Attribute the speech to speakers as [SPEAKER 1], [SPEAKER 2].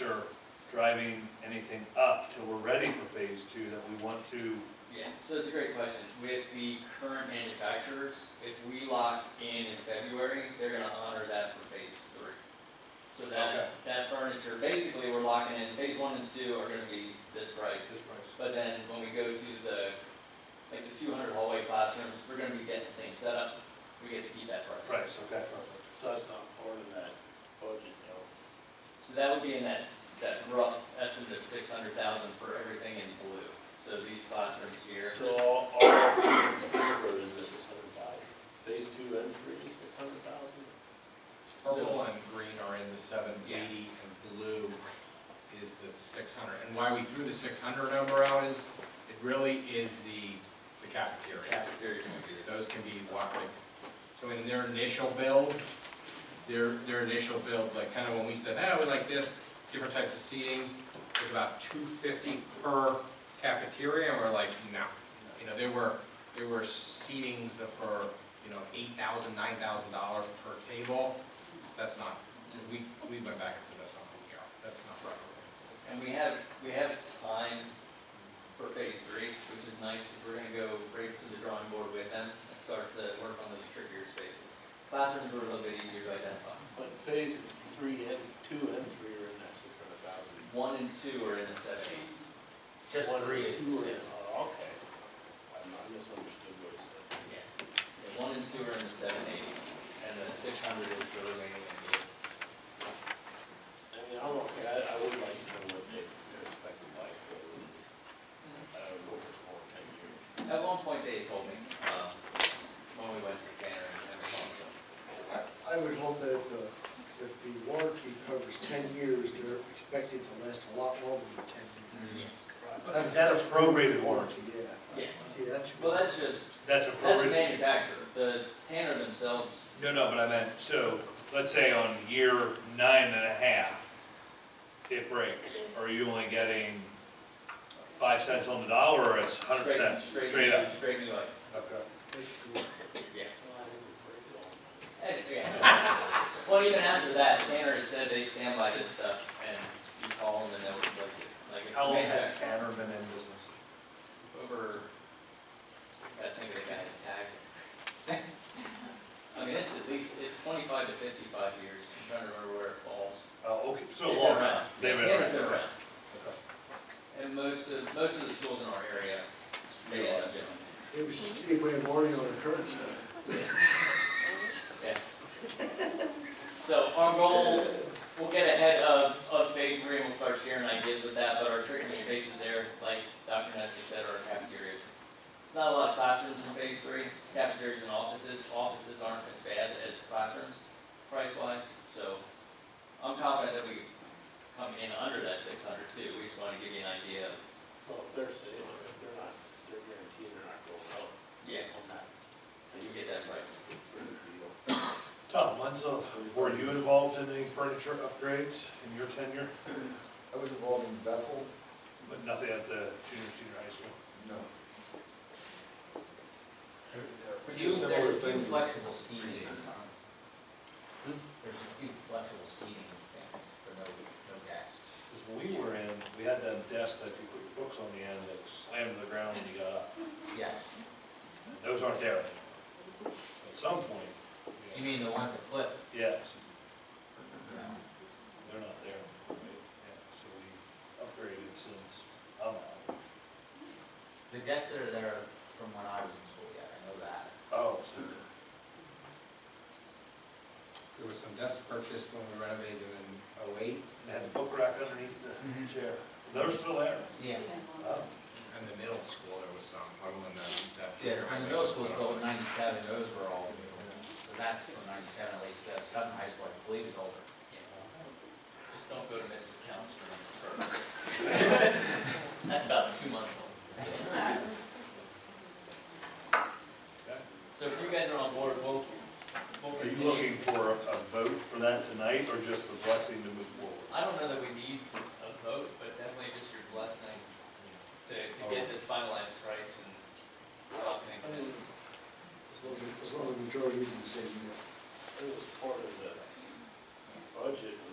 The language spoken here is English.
[SPEAKER 1] pressure driving anything up till we're ready for phase two that we want to,
[SPEAKER 2] Yeah, so it's a great question. With the current manufacturers, if we lock in in February, they're gonna honor that for phase three. So
[SPEAKER 1] Okay.
[SPEAKER 2] that, that furniture, basically, we're locking in, phase one and two are gonna be this price.
[SPEAKER 1] this price.
[SPEAKER 2] But then when we go to the, like the two hundred hallway classrooms, we're gonna be getting the same setup. We get to keep that price.
[SPEAKER 1] Price, okay, perfect.
[SPEAKER 3] So that's not part of that budget, though.
[SPEAKER 2] So that would be in that, s- that rough estimate of six hundred thousand for everything in blue. So these classrooms here.
[SPEAKER 3] So all, all options favored in this six hundred thousand. Phase two and three, six hundred thousand?
[SPEAKER 4] Purple and green are in the seven eighty, and blue is the six hundred. And why we threw the six hundred number out is, it really is the, the cafeterias.
[SPEAKER 2] Cafeteria can be
[SPEAKER 4] Those can be walk- like so in their initial build, their, their initial build, like kind of when we said, oh, we like this, different types of seatings, it was about two fifty per cafeteria, and we're like, no. You know, there were, there were seatings for, you know, eight thousand, nine thousand dollars per table. That's not, we, we went back and said, that's not what we are, that's not right.
[SPEAKER 2] And we have, we have time for phase three, which is nice, because we're gonna go right to the drawing board with them and start to work on those trickier spaces. Classrooms were a little bit easier to identify.
[SPEAKER 3] But phase three and, two and three are in that six hundred thousand.
[SPEAKER 2] One and two are in the seventy.
[SPEAKER 5] Just three.
[SPEAKER 3] Two are in, oh, okay. I I misunderstood what it said.
[SPEAKER 2] Yeah. One and two are in the seven eighty, and the six hundred is the remaining. in the-
[SPEAKER 3] I mean, I'm okay, I, I would like to know what they, their expected life is. I don't know if it's more than ten years.
[SPEAKER 2] At one point, they told me, um, when we went to Tanner and everything.
[SPEAKER 6] I would hope that if the, if the warranty covers ten years, they're expected to last a lot longer than ten years.
[SPEAKER 1] That's
[SPEAKER 6] That's- that's
[SPEAKER 1] prorated warranty.
[SPEAKER 6] Yeah,
[SPEAKER 2] Yeah,
[SPEAKER 6] yeah, that's.
[SPEAKER 2] well, that's just,
[SPEAKER 1] That's a
[SPEAKER 2] that's the
[SPEAKER 1] prorated.
[SPEAKER 2] manufacturer, the Tanner themselves
[SPEAKER 1] No, no, but I meant, so, let's say on year nine and a half, it breaks, are you only getting five cents on the dollar, or it's hundred percent, straight up?
[SPEAKER 2] Straight new light.
[SPEAKER 1] Okay.
[SPEAKER 2] Yeah.
[SPEAKER 3] Well, I think we're pretty long.
[SPEAKER 2] And- yeah. Well, even after that, Tanner has said they stand by this stuff and you call them and they'll replace it. Like, if
[SPEAKER 1] How long
[SPEAKER 2] they
[SPEAKER 1] has
[SPEAKER 2] have
[SPEAKER 1] Tanner been in business?
[SPEAKER 2] Over, I think the guy's tag. I mean, it's at least, it's twenty-five to fifty-five years. I'm trying to remember where it falls.
[SPEAKER 1] Oh, okay, so a
[SPEAKER 2] They've
[SPEAKER 1] long
[SPEAKER 2] been
[SPEAKER 1] time.
[SPEAKER 2] around.
[SPEAKER 1] They've been
[SPEAKER 2] Tanner's
[SPEAKER 1] around.
[SPEAKER 2] around.
[SPEAKER 1] Okay.
[SPEAKER 2] And most of, most of the schools in our area, they all have gym.
[SPEAKER 6] It was see if we have warranty on the current stuff.
[SPEAKER 2] So our goal, we'll get ahead of, of phase three and we'll start sharing ideas with that, but our treatment spaces there, like Dr. Nestor said, are cafeterias. It's not a lot of classrooms in phase three, it's cafeterias and offices, offices aren't as bad as classrooms price wise, so I'm confident that we come in under that six hundred too, we just wanna give you an idea of,
[SPEAKER 3] Well, if they're saying, if they're not, they're guaranteeing they're not going up
[SPEAKER 2] yeah,
[SPEAKER 3] on that.
[SPEAKER 2] you get that price.
[SPEAKER 3] Sort of deal.
[SPEAKER 1] Tom, when's the, were you involved in any furniture upgrades in your tenure,
[SPEAKER 7] I was involved in Bethel,
[SPEAKER 1] but nothing at the junior, senior high school?
[SPEAKER 7] no.
[SPEAKER 5] You,
[SPEAKER 7] Similar
[SPEAKER 5] there's a few
[SPEAKER 7] thing.
[SPEAKER 5] flexible seating. Hmm? There's a few flexible seating things, but no, no desks.
[SPEAKER 1] Because when we were in, we had that desk that you put your books on the end that slammed to the ground when you got up.
[SPEAKER 5] Yes.
[SPEAKER 1] Those aren't there anymore. At some point,
[SPEAKER 5] You mean the ones that flip?
[SPEAKER 1] yes, they're not there. right? Yeah, So we upgraded since, I'm out.
[SPEAKER 5] The desks that are there from when I was in school, yeah, I know that.
[SPEAKER 1] Oh, so
[SPEAKER 4] There was some desks purchased when we renovated in oh oh-eight,
[SPEAKER 1] they had the book rack underneath the chair. They're still there.
[SPEAKER 5] Yeah.
[SPEAKER 1] Oh.
[SPEAKER 4] and the middle school, there was some, I don't know, that.
[SPEAKER 5] Yeah, from the middle school, built in ninety-seven, those were all new. So that's from ninety-seven, at least, uh, Sutton High School, I believe, is older.
[SPEAKER 2] Just don't go to Mrs. Counts for first. That's about two months old. So if you guys are on board, we'll, we'll
[SPEAKER 1] Are you
[SPEAKER 2] continue.
[SPEAKER 1] looking for a vote for that tonight or just the blessing to move forward?
[SPEAKER 2] I don't know that we need a vote, but definitely just your blessing to,
[SPEAKER 1] Oh.
[SPEAKER 2] to get this finalized price and all
[SPEAKER 6] I
[SPEAKER 2] things.
[SPEAKER 6] mean, As long as, as long as the majority is in the same, yeah.
[SPEAKER 3] It was part of the budget, when